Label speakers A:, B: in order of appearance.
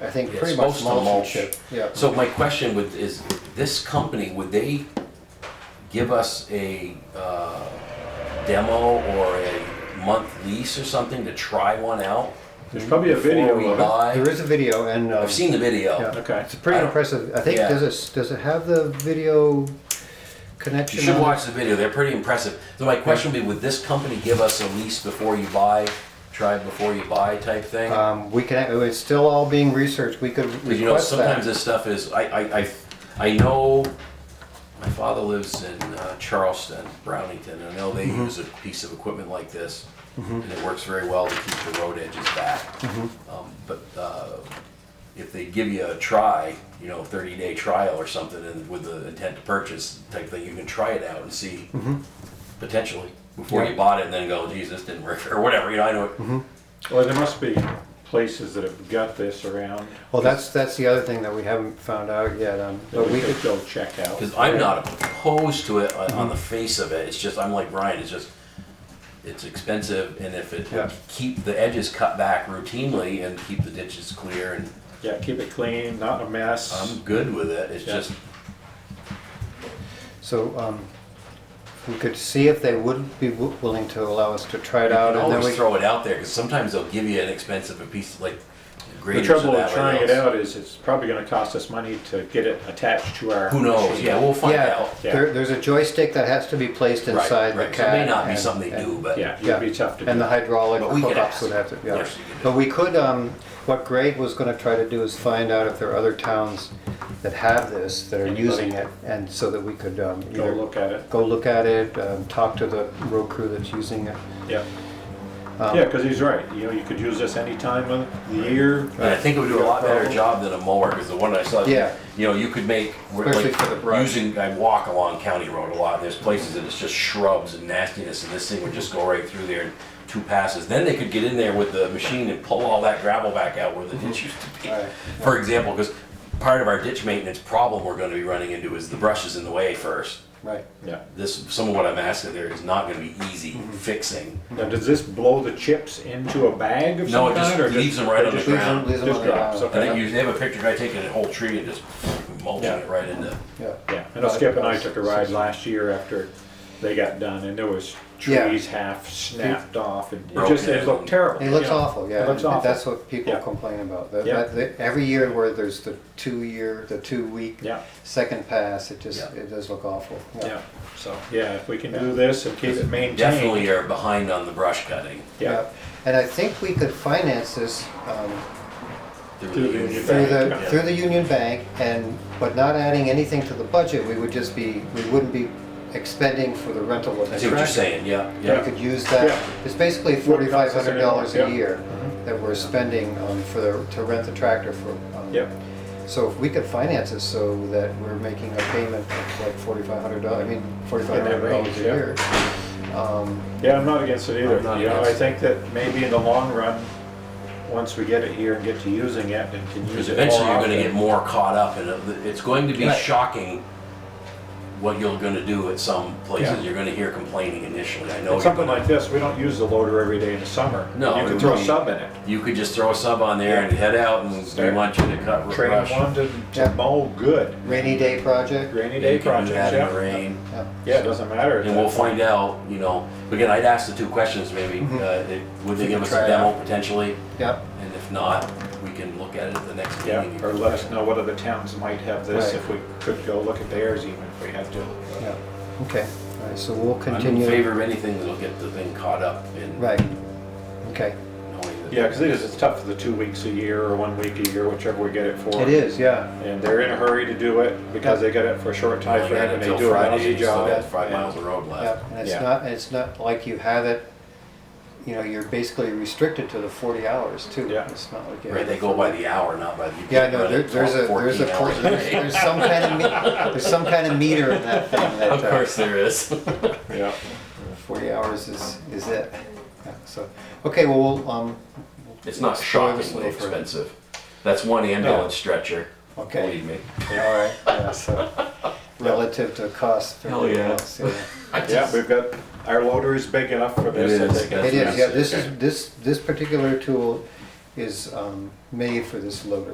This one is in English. A: I think
B: It's
A: pretty much
B: supposed to
A: mulch and
B: mulch.
A: chip, yeah.
B: So my question would, is this company, would they give us a uh, demo or a month lease or something to try one out?
C: There's probably a
B: before we
C: video of
A: There
B: buy?
A: is a video and. um,
B: I've seen the
C: it.
B: video.
C: Okay.
A: It's pretty
B: I don't-
A: impressive. I think,
B: Yeah.
A: does it, does it have the video connection?
B: You should
A: on it?
B: watch the video, they're pretty impressive. So my question would be, would this company give us a lease before you buy, try before you buy type thing?
A: Um, we can, it's still all being researched. We could
B: Because you know,
A: request
B: sometimes
A: that.
B: this stuff is, I, I, I, I know, my father lives in uh, Charleston, Brownington, and I know they
A: Mm-hmm.
B: use a piece of equipment like this, and it works very well to keep the road edges back.
A: Mm-hmm.
B: Um, But uh, if they give you a try, you know, thirty-day trial or something, and with the intent to purchase type thing, you can try it out and see
A: Mm-hmm.
B: potentially, before you bought it, and then go, geez, this didn't work, or whatever, you know, I know, it-
C: Well, there must be places that have got this around.
A: Well, that's, that's the other thing that we haven't found out yet. um,
C: That
A: But
C: we
A: we
C: could
A: could,
C: go check out.
B: Because I'm not opposed to it uh, on,
C: Mm-hmm.
B: on the face of it. It's just I'm like Brian. It's just it's expensive, and if it
A: Yeah.
B: keep the edges cut back routinely and keep the ditches clear, and
C: Yeah, keep it clean, not a mess.
B: I'm good with it. It's
C: Yeah.
B: just
A: so, um, we could see if they would be wi- willing to allow us to try it
C: Oh,
B: you
A: out
B: can
A: and then
B: always
A: we.
B: throw it out there because sometimes they'll give you an expensive piece like
C: The
B: graders or
C: trouble
B: that
C: with
B: or
C: trying it
B: else.
C: out is it's probably gonna cost us money to get it attached to our.
B: Who knows?
C: machine.
B: Yeah, we'll find
A: Yeah,
B: out.
C: Yeah.
A: there, there's a joystick that has to be placed
B: Right,
A: inside the
B: right.
A: cab.
B: So it may not be
A: and-
B: something they
A: and-
B: do, but
C: Yeah,
A: Yeah.
C: it'd be tough to
A: And the
C: do.
A: hydraulic
B: But we could
A: hookups
B: ask.
A: would have to, yeah.
B: Yes, you could do
A: But we could, um, what Greg was gonna try to do is find out if there are other towns that have this, that are
C: Anybody?
A: using it, and so that we could, um,
C: Go
A: either
C: look at it,
A: go look at it, um, talk to the road crew that's using it.
C: yeah.
B: Um,
C: Yeah, cause he's right, you know, you could use this any time of the year.
B: And I think it would do a lot better job than a mower, because the one I saw,
A: Yeah.
B: you know, you could make, we're
A: Especially
B: like,
A: for the brush.
B: using, I walk along County Road a lot, and there's places that it's just shrubs and nastiness, and this thing would just go right through there in two passes. Then they could get in there with the machine and pull all that gravel back out where the ditch used to
A: Mm-hmm. Right.
B: be. For example, because part of our ditch maintenance problem we're gonna be running into is the brush is in the way first.
A: Right.
C: Yeah,
B: This, some of what I'm asking there is not gonna be easy
A: Mm-hmm.
B: fixing.
C: now does this blow the chips into a bag of
B: No,
C: some
B: it just
C: kind? or
B: leaves them right on the
C: just-
A: Leaves them-
B: ground.
A: leaves them
C: Just
A: on the
C: drops,
A: ground.
B: I think you, they have a picture of a guy taking a whole tree and just mulching it right into.
A: Yeah.
C: Yeah, I know Skip and I took a ride last year after they got done, and there was
A: Yeah.
C: trees half snapped off, and it
B: Broken
C: just, it looked
B: and-
C: terrible.
A: It looks
C: you know.
A: awful, yeah.
C: It looks
A: and
C: awful.
A: That's what people
C: Yeah.
A: complain about. That-
C: Yeah.
A: that- that- Every year where there's the two-year, the two-week,
C: Yeah.
A: second pass, it just,
B: Yeah.
A: it does look awful.
C: Yeah, so, yeah, if we can do this and keep it maintained,
B: Definitely are behind on the brush cutting.
C: yeah,
A: And I think we could finance this, um,
C: Through the union
A: through the,
C: Bank,
A: through the Union Bank and, but not adding anything to the budget, we would just be, we wouldn't be expending for the rental of
B: I
A: the
B: see what you're
A: tractor.
B: saying, yeah,
A: We
B: yeah.
A: could use
C: Yeah.
A: that, it's basically
C: Wouldn't
A: forty-five
C: cost us
A: hundred dollars a
C: anything, yeah. Mm-hmm.
A: year that we're spending um, for the, to rent the tractor for. um,
C: Yep.
A: So if we could finance it so that we're making a payment of like forty-five hundred dollars, I mean, forty-five hundred dollars a
C: yeah.
A: year. um,
C: yeah, I'm not against it either,
B: I'm not
C: you know, I
B: against it.
C: think that maybe in the long run, once we get it here and get to using it and can use
B: Because
C: it more
B: eventually you're gonna get
C: often.
B: more caught up and it- it's going to be
A: Right.
B: shocking what you're gonna do at some
C: Yeah.
B: places. You're gonna hear complaining initially, I know.
C: And
B: you're
C: something
B: gonna-
C: like this, we don't use the loader every day in the summer.
B: No,
C: You
B: it
C: can throw
B: would
C: a
B: be-
C: sub in it,
B: You could just throw a sub on there and head out and we
C: Start
B: want you to cut
C: train
B: brush.
C: one to, to
A: Yeah.
C: mow good,
A: Rainy day project.
C: rainy
B: You
C: day
B: can do
C: projects,
B: that in the
C: yeah,
B: rain.
A: Yeah.
C: yeah, it doesn't matter.
B: And we'll find out, you know, again, I'd ask the two questions maybe,
C: Mm-hmm.
B: uh, it- would they
A: You
B: give
A: can
B: us
A: try
B: a
A: it
B: demo
A: out.
B: potentially?
A: Yep.
B: And if not, we can look at it at the next
C: Yeah,
B: meeting.
C: or let us know what other towns might have this,
A: Right.
C: if we could go look at theirs even if we had to.
A: Yeah, okay, all right, so we'll
B: I'm in
A: continue.
B: favor of anything that'll get the thing caught up in
A: Right, okay,
B: knowing that.
C: Yeah, because it is, it's tough for the two weeks a year or one week a year, whichever we get it for.
A: it is, yeah,
C: And they're in a hurry to do it because they got it for a short
B: I
C: time
B: only
C: frame
B: got
C: and
B: it
C: they
B: till
C: do a
B: Friday,
C: lousy
B: so I
C: job.
B: got five miles of road
A: yeah,
B: left.
A: and it's
C: Yeah.
A: not, it's not like you have it, you know, you're basically restricted to the forty hours too.
C: Yeah.
A: It's not like. you
B: Right,
A: have
B: they
A: it
B: go
A: for-
B: by the hour, not by the. you
A: Yeah,
B: can't
A: no,
B: run
A: there,
B: it
A: there's a,
B: 14
A: there's a,
B: hours.
A: there's, there's some kind of, me- there's some kind of meter in that thing that.
B: Of
A: uh,
B: course there is.
C: Yeah,
A: Forty hours is, is it, Yeah, so, okay, well, we'll, um.
B: It's not
A: explore this a
B: shockingly
A: little further.
B: expensive. That's one ambulance stretcher,
A: Okay.
B: believe me.
A: Yeah, All right, yeah, so, relative to cost.
B: Hell yeah.
A: everything else, yeah.
B: I
C: yeah,
B: just-
C: we've got, our loader is big enough for this.
B: It
C: that
B: is,
C: they can-
A: It is, yeah, this
C: Okay.
A: is, this, this particular tool is um, made for this loader.